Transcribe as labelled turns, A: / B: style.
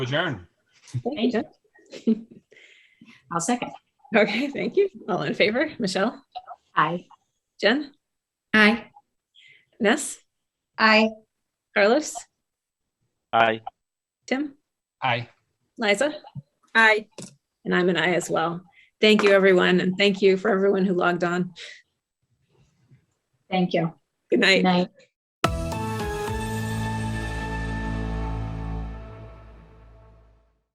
A: adjourn.
B: Thank you.
C: I'll second.
B: Okay, thank you. All in favor? Michelle?
C: Aye.
B: Jen?
C: Aye.
B: Ness?
C: Aye.
B: Carlos?
D: Aye.
B: Tim?
A: Aye.
B: Liza? Aye. And I'm an aye as well. Thank you, everyone, and thank you for everyone who logged on.
C: Thank you.
B: Good night.
C: Good night.